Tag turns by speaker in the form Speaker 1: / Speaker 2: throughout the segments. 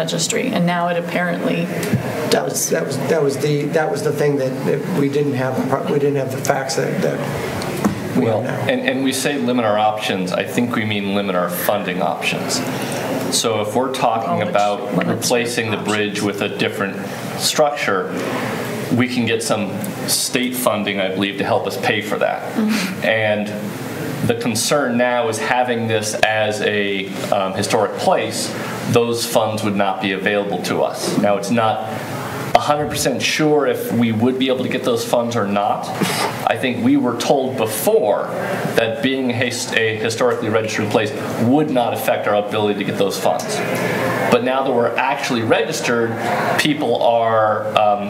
Speaker 1: registry, and now it apparently
Speaker 2: That was, that was, that was the, that was the thing that, that we didn't have, the pro- we didn't have the facts that, that we have now.
Speaker 3: And, and we say limit our options, I think we mean limit our funding options. So if we're talking
Speaker 1: Well,
Speaker 3: about
Speaker 1: it's- well, it's-
Speaker 3: replacing the bridge with a different structure, we can get some state funding, I believe, to help us pay for that.
Speaker 1: Mm-hmm.
Speaker 3: And the concern now is having this as a um, historic place, those funds would not be available to us. Now, it's not 100% sure if we would be able to get those funds or not. I think we were told before that being a his- a historically registered place would not affect our ability to get those funds. But now that we're actually registered, people are um,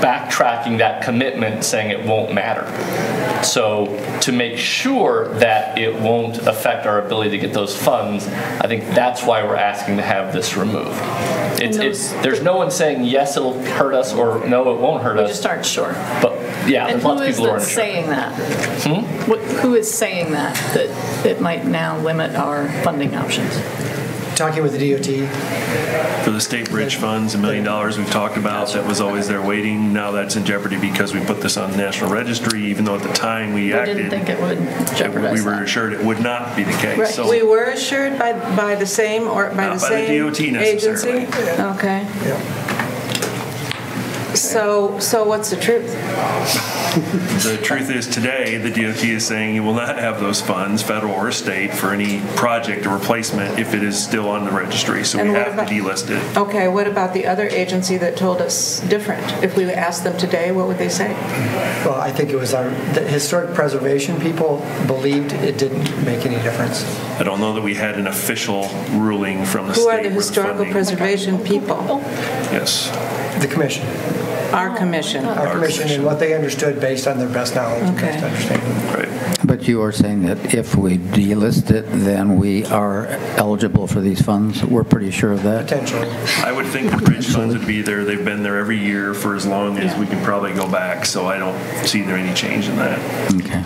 Speaker 3: backtracking that commitment, saying it won't matter. So to make sure that it won't affect our ability to get those funds, I think that's why we're asking to have this removed. It's, it's, there's no one saying, yes, it'll hurt us, or no, it won't hurt
Speaker 1: just
Speaker 3: us,
Speaker 1: aren't sure.
Speaker 3: but, yeah,
Speaker 1: And
Speaker 3: there's
Speaker 1: who
Speaker 3: lots of
Speaker 1: is
Speaker 3: people
Speaker 1: that
Speaker 3: who aren't sure. Hmm?
Speaker 1: saying that? What- Who is saying that, that it might now limit our funding options?
Speaker 2: Talking with the DOT,
Speaker 4: For the state bridge funds, a million dollars we've talked about, that was always there waiting. Now that's in jeopardy because we put this on the National Registry, even though at the time we
Speaker 1: We
Speaker 4: acted.
Speaker 1: didn't think it would
Speaker 4: We
Speaker 1: jeopardize
Speaker 4: were
Speaker 1: that.
Speaker 4: assured it would not be the
Speaker 1: Right.
Speaker 4: case. So
Speaker 5: We were assured by, by the same, or by the
Speaker 4: Not by the
Speaker 5: same
Speaker 4: DOT
Speaker 5: agency?
Speaker 4: necessarily.
Speaker 5: Okay.
Speaker 2: yeah.
Speaker 5: So, so what's the truth?
Speaker 4: the truth is today, the DOT is saying you will not have those funds, federal or state, for any project or replacement if it is still on the registry. So we
Speaker 5: And what
Speaker 4: have to
Speaker 5: about-
Speaker 4: delist it.
Speaker 5: Okay, what about the other agency that told us different? If we asked them today, what would they say?
Speaker 2: Well, I think it was our, the historic preservation people believed it didn't make any difference.
Speaker 4: I don't know that we had an official ruling from the state.
Speaker 5: Who are
Speaker 4: where
Speaker 5: the historical
Speaker 4: funding-
Speaker 5: preservation people?
Speaker 4: Yes.
Speaker 2: The commission,
Speaker 5: Our commission.
Speaker 2: our commission, and what they understood based on their best knowledge and best
Speaker 5: Okay.
Speaker 2: understanding.
Speaker 4: Right.
Speaker 6: But you are saying that if we delist it, then we are eligible for these funds? We're pretty sure of that?
Speaker 2: Potentially.
Speaker 4: I would think the bridge funds would be there. They've been there every year for as long as we can probably go back, so I don't see there any change in that.
Speaker 6: Okay.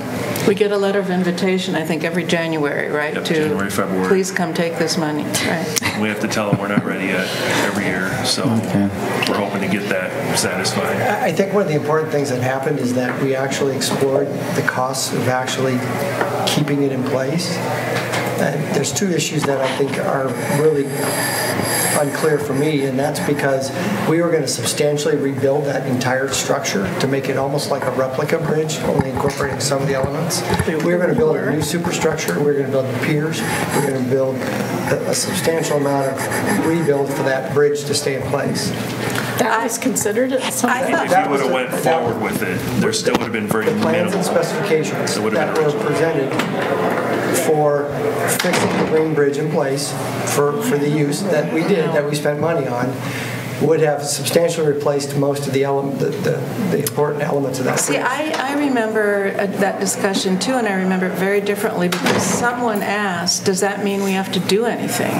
Speaker 5: We get a letter of invitation, I think, every January, right?
Speaker 4: Yep,
Speaker 5: to
Speaker 4: January, February.
Speaker 5: Please come take this money, right?
Speaker 4: We have to tell them we're not ready yet every year, so
Speaker 6: Okay.
Speaker 4: we're hoping to get that satisfied.
Speaker 2: I I think one of the important things that happened is that we actually explored the costs of actually keeping it in place. And there's two issues that I think are really unclear for me, and that's because we were going to substantially rebuild that entire structure to make it almost like a replica bridge, only incorporating some of the elements. We were going to build a new superstructure, we were going to build the piers, we were going to build a a substantial amount of rebuild for that bridge to stay in place.
Speaker 1: That was considered at some
Speaker 5: I
Speaker 1: point?
Speaker 5: thought-
Speaker 4: If
Speaker 2: That
Speaker 4: you
Speaker 2: was
Speaker 4: would have went
Speaker 2: the- that-
Speaker 4: forward with it, there still would have been very
Speaker 2: plans
Speaker 4: minimal.
Speaker 2: and specifications
Speaker 4: It would've been
Speaker 2: that were
Speaker 4: original.
Speaker 2: presented for fixing the green bridge in place for, for the use that we did, that we spent money on, would have substantially replaced most of the element, the, the the important elements of that.
Speaker 5: See,
Speaker 2: bridge.
Speaker 5: I, I remember uh, that discussion too, and I remember it very differently because someone asked, does that mean we have to do anything?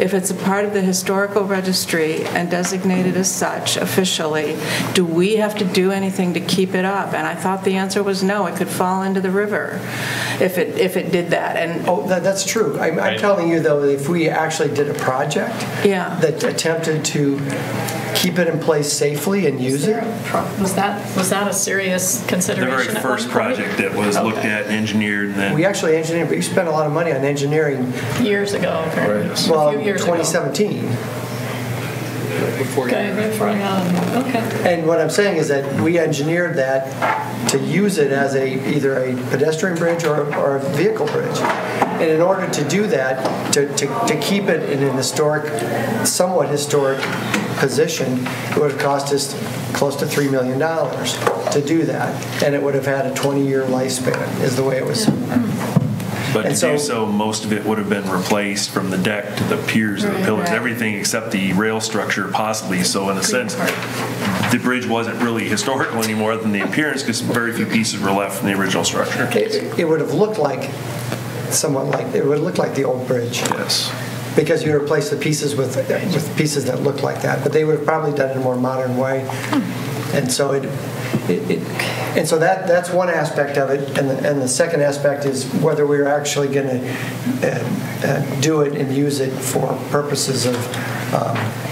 Speaker 5: If it's a part of the historical registry and designated as such officially, do we have to do anything to keep it up? And I thought the answer was no, it could fall into the river if it, if it did that. And
Speaker 2: Oh, that, that's true. I'm, I'm
Speaker 3: Right.
Speaker 2: telling you though, if we actually did a project
Speaker 5: Yeah.
Speaker 2: that attempted to keep it in place safely and use it,
Speaker 1: Was that, was that a serious
Speaker 4: The
Speaker 1: consideration?
Speaker 4: very
Speaker 1: at one
Speaker 4: first
Speaker 1: point?
Speaker 4: project that was looked at and engineered and
Speaker 2: we
Speaker 4: then,
Speaker 2: actually engineered, we spent a lot of money on engineering,
Speaker 1: Years ago, apparently.
Speaker 2: well,
Speaker 1: A few years ago.
Speaker 2: 2017.
Speaker 1: Okay, before, um, okay.
Speaker 2: And what I'm saying is that we engineered that to use it as a, either a pedestrian bridge or, or a vehicle bridge. And in order to do that, to, to, to keep it in an historic, somewhat historic position, it would have cost us close to $3 million to do that. And it would have had a 20-year lifespan, is the way it was.
Speaker 4: but to
Speaker 2: and so-
Speaker 4: do so, most of it would have been replaced from the deck to the piers and the pillars, everything except the rail structure possibly. So in a sense, the bridge wasn't really historical anymore than the appearance because very few pieces were left from the original structure.
Speaker 2: It, it would have looked like, somewhat like, it would look like the old bridge.
Speaker 4: Yes.
Speaker 2: because you replace the pieces with, with pieces that look like that, but they would have probably done it in a more modern way. And so it, it, it- and so that, that's one aspect of it, and the, and the second aspect is whether we're actually gonna uh, uh, do it and use it for purposes of um,